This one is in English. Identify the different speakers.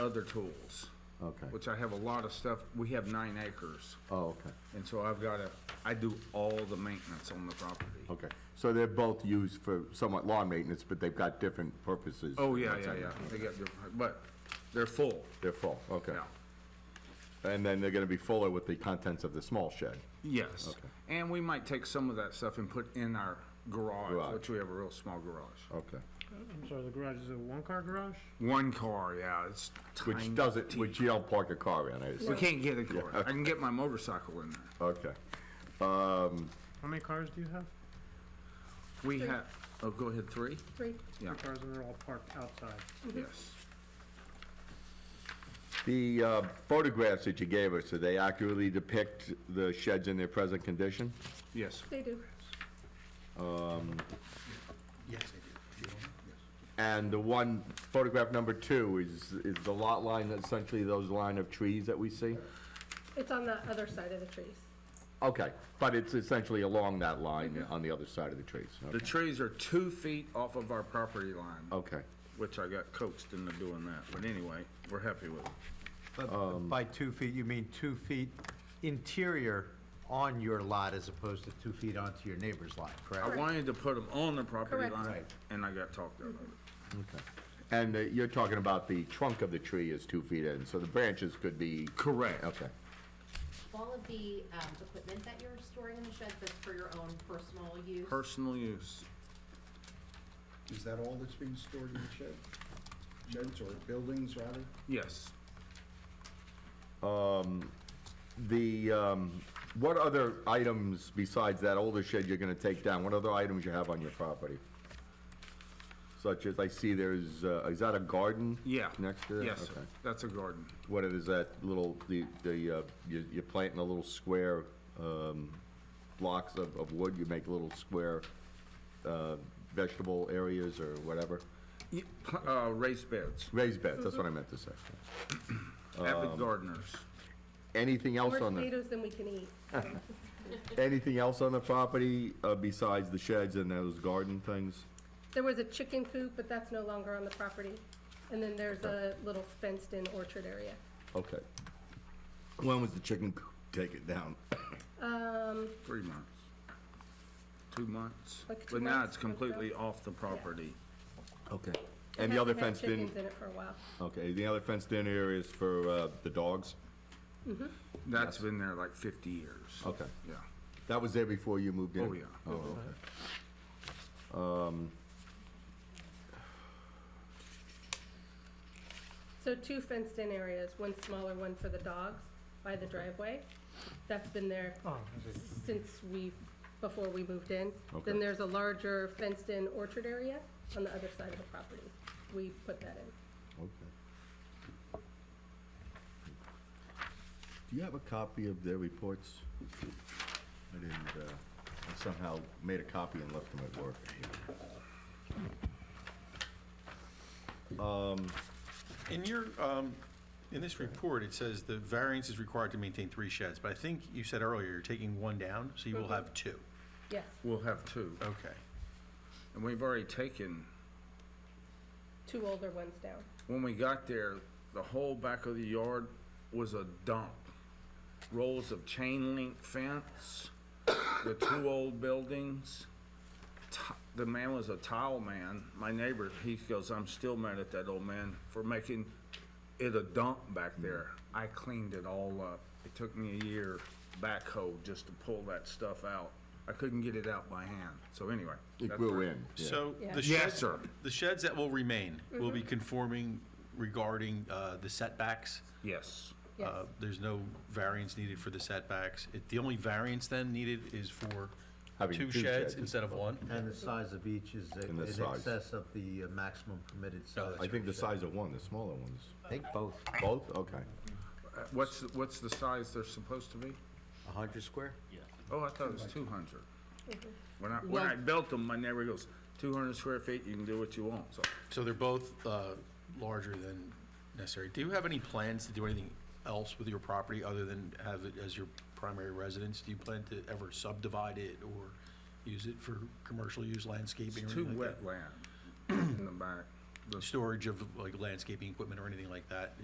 Speaker 1: other tools,
Speaker 2: Okay.
Speaker 1: which I have a lot of stuff. We have nine acres.
Speaker 2: Oh, okay,
Speaker 1: And so I've got to, I do all the maintenance on the property.
Speaker 2: okay. So they're both used for somewhat lawn maintenance, but they've got different purposes.
Speaker 1: Oh, yeah, yeah, yeah. They got different, but they're full.
Speaker 2: They're full, okay.
Speaker 1: Yeah.
Speaker 2: And then they're gonna be fuller with the contents of the small shed.
Speaker 1: Yes. And we might take some of that stuff and put in our garage,
Speaker 2: Garage.
Speaker 1: which we have a real small garage.
Speaker 2: Okay.
Speaker 3: I'm sorry, the garage is a one-car garage?
Speaker 1: One car, yeah, it's tiny.
Speaker 2: Which doesn't, which you don't park a car in, I
Speaker 1: We
Speaker 2: assume.
Speaker 1: can't get a car. I can get my motorcycle in there.
Speaker 2: Okay. Um,
Speaker 3: How many cars do you have?
Speaker 1: We have, oh, go ahead, three?
Speaker 4: Three.
Speaker 1: Yeah.
Speaker 3: Three cars and they're all parked outside.
Speaker 1: Yes.
Speaker 2: the uh, photographs that you gave us, do they accurately depict the sheds in their present condition?
Speaker 1: Yes.
Speaker 4: They do.
Speaker 5: Yes, I do. Do you want it? Yes.
Speaker 2: And the one, photograph number two, is, is the lot line essentially those line of trees that we see?
Speaker 4: It's on the other side of the trees.
Speaker 2: Okay, but it's essentially along that line
Speaker 1: Mm-hmm.
Speaker 2: on the other side of the trees.
Speaker 1: The trees are two feet off of our property line.
Speaker 2: Okay,
Speaker 1: Which I got coaxed into doing that, but anyway, we're happy with it.
Speaker 2: Um,
Speaker 5: But by two feet, you mean two feet interior on your lot as opposed to two feet onto your neighbor's lot,
Speaker 1: I
Speaker 5: correct?
Speaker 1: wanted to put them on the property
Speaker 4: Correct. Mm-hmm.
Speaker 1: line,
Speaker 5: Right.
Speaker 1: and I got talked out of it.
Speaker 2: okay. And uh, you're talking about the trunk of the tree is two feet in, so the branches could be,
Speaker 1: Correct.
Speaker 2: okay,
Speaker 6: All of the um, equipment that you're storing in the shed that's for your own personal use?
Speaker 1: Personal use.
Speaker 7: Is that all that's being stored in the shed? Sheds or buildings, rather?
Speaker 1: Yes.
Speaker 2: The, um, what other items besides that older shed you're gonna take down? What other items you have on your property? Such as, I see there's, uh, is that a garden?
Speaker 1: Yeah.
Speaker 2: Next to that?
Speaker 1: Yes, sir.
Speaker 2: Okay.
Speaker 1: That's a garden.
Speaker 2: What is that little, the, the, uh, you- you're planting a little square, um, blocks of, of wood? You make little square, uh, vegetable areas or whatever?
Speaker 1: Y- pl- Uh, raised beds.
Speaker 2: Raised beds, that's what I meant to say. Um,
Speaker 1: Avid gardeners.
Speaker 2: Anything
Speaker 4: More
Speaker 2: else on the,
Speaker 4: tomatoes than we can eat.
Speaker 2: anything else on the property, uh, besides the sheds and those garden things?
Speaker 4: There was a chicken coop, but that's no longer on the property. And then there's a little fenced-in orchard area.
Speaker 2: Okay. When was the chicken coop taken down?
Speaker 4: Um,
Speaker 1: Three months. Two months.
Speaker 4: Like two
Speaker 1: But now
Speaker 4: months
Speaker 1: it's
Speaker 4: ago.
Speaker 1: completely off the property.
Speaker 2: Okay.
Speaker 4: it
Speaker 2: And the other
Speaker 4: hasn't had
Speaker 2: fenced in,
Speaker 4: Chickens in it for a while.
Speaker 2: okay, the other fenced in areas for, uh, the dogs?
Speaker 1: That's been there like fifty years.
Speaker 2: Okay.
Speaker 1: Yeah.
Speaker 2: That was there before you moved in?
Speaker 1: Oh, yeah.
Speaker 2: Oh, okay.
Speaker 4: So two fenced-in areas, one smaller one for the dogs by the driveway. That's been there
Speaker 3: Oh,
Speaker 4: since we, before we moved in.
Speaker 2: Okay.
Speaker 4: Then there's a larger fenced-in orchard area on the other side of the property. We put that in.
Speaker 2: Okay. Do you have a copy of their reports? I didn't, uh, I somehow made a copy and left them at work.
Speaker 8: In your, um, in this report, it says the variance is required to maintain three sheds, but I think you said earlier you're taking one down, so you
Speaker 4: Mm-hmm.
Speaker 8: will have two.
Speaker 4: Yes,
Speaker 1: We'll have two.
Speaker 8: Okay.
Speaker 1: And we've already taken
Speaker 4: two older ones down.
Speaker 1: when we got there, the whole back of the yard was a dump. Rolls of chain link fence, the two old buildings. Ti- The man was a tile man. My neighbor, he goes, I'm still mad at that old man for making it a dump back there. I cleaned it all up. It took me a year backhoe just to pull that stuff out. I couldn't get it out by hand. So anyway.
Speaker 2: It
Speaker 1: that's
Speaker 2: grew
Speaker 1: my-
Speaker 2: in, yeah.
Speaker 8: So
Speaker 4: Yeah. Mm-hmm.
Speaker 8: the
Speaker 1: Yes,
Speaker 8: sheds,
Speaker 1: sir.
Speaker 8: the sheds that will remain will be conforming regarding, uh, the setbacks.
Speaker 1: Yes.
Speaker 4: Yes.
Speaker 8: Uh, There's no variance needed for the setbacks. It- The only variance then needed is for
Speaker 2: Having
Speaker 8: two
Speaker 2: two
Speaker 8: sheds
Speaker 2: sheds.
Speaker 8: instead of one.
Speaker 5: And the size of each is
Speaker 2: And
Speaker 5: in
Speaker 2: the size.
Speaker 5: excess of the uh, maximum permitted size.
Speaker 2: I think the size of one, the smaller ones.
Speaker 5: I think both.
Speaker 2: Both, okay.
Speaker 1: Uh, What's, what's the size they're supposed to be?
Speaker 5: A hundred square?
Speaker 1: Oh, I thought it was two hundred. When I, when I built them, my neighbor goes, two hundred square feet, you can do what you want, so.
Speaker 8: So they're both uh, larger than necessary. Do you have any plans to do anything else with your property other than have it as your primary residence? Do you plan to ever subdivide it or use it for commercial use, landscaping? or
Speaker 1: Two
Speaker 8: anything like that?
Speaker 1: wetland in the back.
Speaker 8: Storage of like landscaping equipment or anything like that?